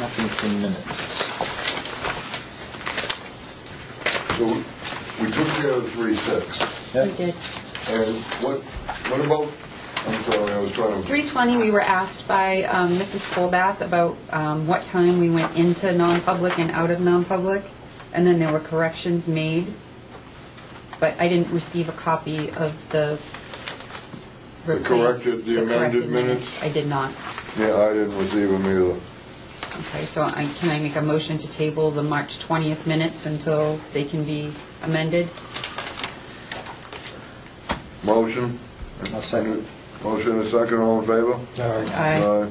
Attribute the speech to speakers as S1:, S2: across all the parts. S1: nothing for minutes.
S2: So we we took care of three six,
S1: Yep.
S3: We did.
S2: and what, what about, I'm sorry, I was trying to,
S3: 3:20, we were asked by um, Mrs. Colbath about um, what time we went into non-public and out of non-public, and then there were corrections made, but I didn't receive a copy of the
S2: The
S3: replaced...
S2: corrected- the
S3: the
S2: amended
S3: corrected
S2: minutes?
S3: I did not.
S2: yeah, I didn't receive them either.
S3: Okay, so I- can I make a motion to table the March 20th minutes until they can be amended?
S2: Motion?
S1: I'll second.
S2: Motion and second, all in favor?
S4: Aye.
S3: Aye.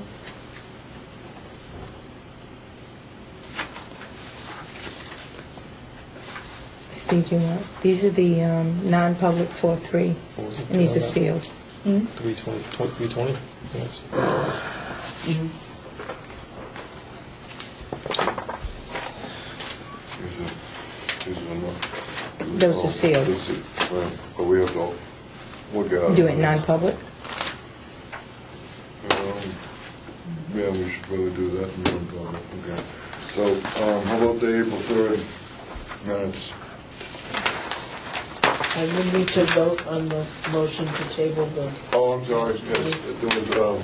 S5: Steve, do you want, these are the um, non-public 4-3,
S4: What was it?
S5: and these are sealed.
S4: Three twenty, three twenty? Yes.
S2: Is it- is it enough?
S5: Those are sealed.
S2: Is it- well, But we have to look at it.
S5: Do it non-public?
S2: Um, Yeah, we should probably do that in non-public, okay. So, um, how about the April third minutes?
S6: I would need to vote on the motion to table the,
S2: Oh, I'm sorry, yes, there was, um,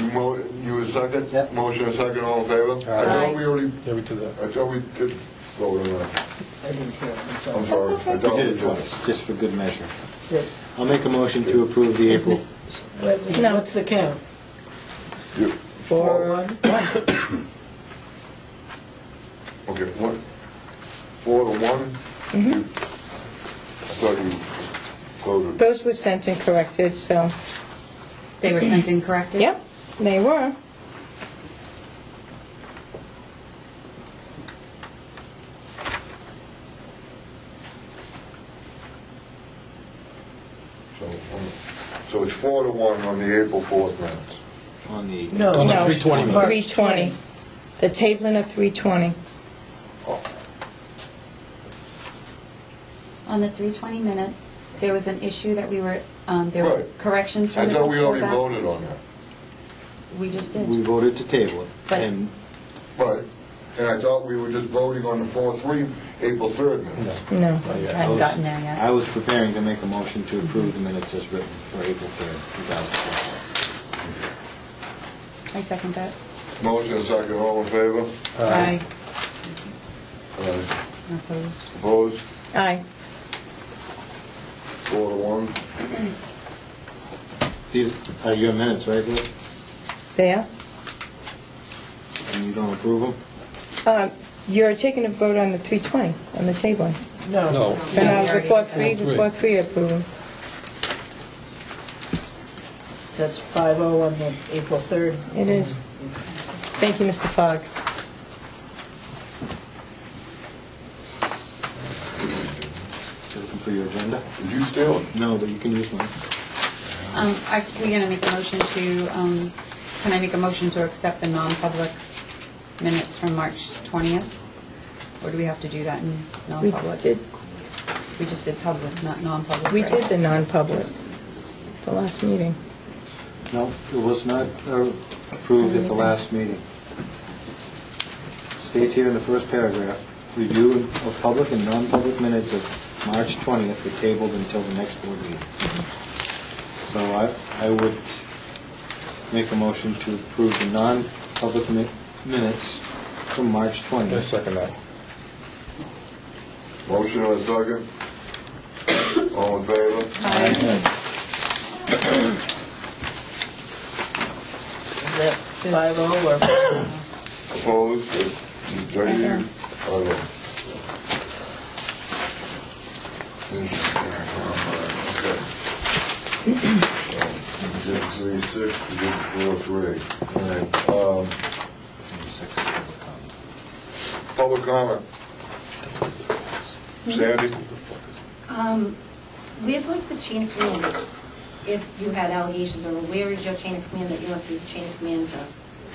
S2: you mo, you were second?
S1: Yep.
S2: Motion a second, all in favor? I thought we already,
S4: Yeah, we did that.
S2: I thought we did vote on that.
S6: I didn't hear, it, I'm
S2: I'm
S6: sorry.
S2: sorry. I
S1: We
S2: thought
S1: did it twice, just for good measure.
S6: Is it-
S1: I'll make a motion to approve the
S3: Is
S1: April.
S3: Miss-
S6: what's-
S5: No.
S6: What's the count?
S2: You-
S6: Four, one?
S2: Okay, one, four to one? You- I thought you voted.
S5: Those were sent and corrected, so,
S3: They were sent in corrected?
S5: yep, they were.
S2: So, um, So it's four to one on the April fourth minutes.
S1: On the.
S6: No.
S4: On the
S5: No.
S4: three twenty.
S6: March
S5: 320.
S6: 20.
S5: The tabling of 320.
S3: On the 3:20 minutes, there was an issue that we were, um, there were
S2: Right.
S3: corrections from
S2: I
S3: Mrs.
S2: thought we already
S3: Colbath.
S2: voted on that.
S3: We just
S1: We
S3: did.
S1: voted to table it,
S3: But-
S1: and
S2: But, and I thought we were just voting on the four, three, April third minutes.
S5: No.
S4: Not yet.
S3: I haven't gotten there
S1: I
S3: yet. Mm-hmm.
S1: was preparing to make a motion to approve the minutes as written for April 3rd, 2012.
S3: I second that.
S2: Motion and second, all in favor?
S5: Aye.
S2: Aye.
S3: Opposed.
S2: Opposed?
S5: Aye.
S2: Four to one.
S1: These are your minutes, right, Lou?
S5: They are?
S1: And you don't approve them?
S5: Uh, You're taking a vote on the 320, on the tabling.
S6: No.
S4: No.
S5: So now,
S3: we
S5: the
S3: already
S5: 4-3,
S4: did that.
S5: the 4-3 approval.
S6: That's five oh on the April third.
S5: It is. Thank you, Mr. Fogg.
S1: Looking for your agenda?
S2: Did you steal it?
S1: No, but you can use mine.
S3: Um, I, we're gonna make a motion to, um, can I make a motion to accept the non-public minutes from March 20th? Or do we have to do that in
S5: We
S3: non-public?
S5: did,
S3: We just did public, not non-public.
S5: we
S3: right?
S5: did the non-public, the last meeting.
S1: No, it was not uh, approved at the last meeting. States here in the first paragraph, review of public and non-public minutes of March 20th were tabled until the next board meeting. So I, I would make a motion to approve the non-public mi- minutes from March
S4: I
S1: 20th.
S4: second that.
S2: Motion and second. All in favor?
S6: Is that five oh or?
S2: Opposed? Are you, I don't. Okay. You did three, six, you did four, three. All right, um, public comment. Sandy?
S7: Um, where's like the chain of command? If you had allegations, or where is your chain of command that you went through the chain of command to?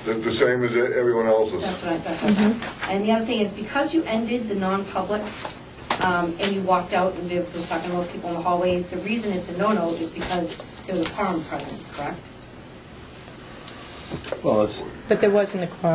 S2: The, the same as everyone
S7: That's
S2: else's.
S7: what I, that's what I thought. And the other thing is, because you ended the non-public, um, and you walked out, and Viv was talking about people in the hallway, the reason it's a no-no is because there was a quorum present, correct?
S1: Well, it's,
S5: But there wasn't a quorum.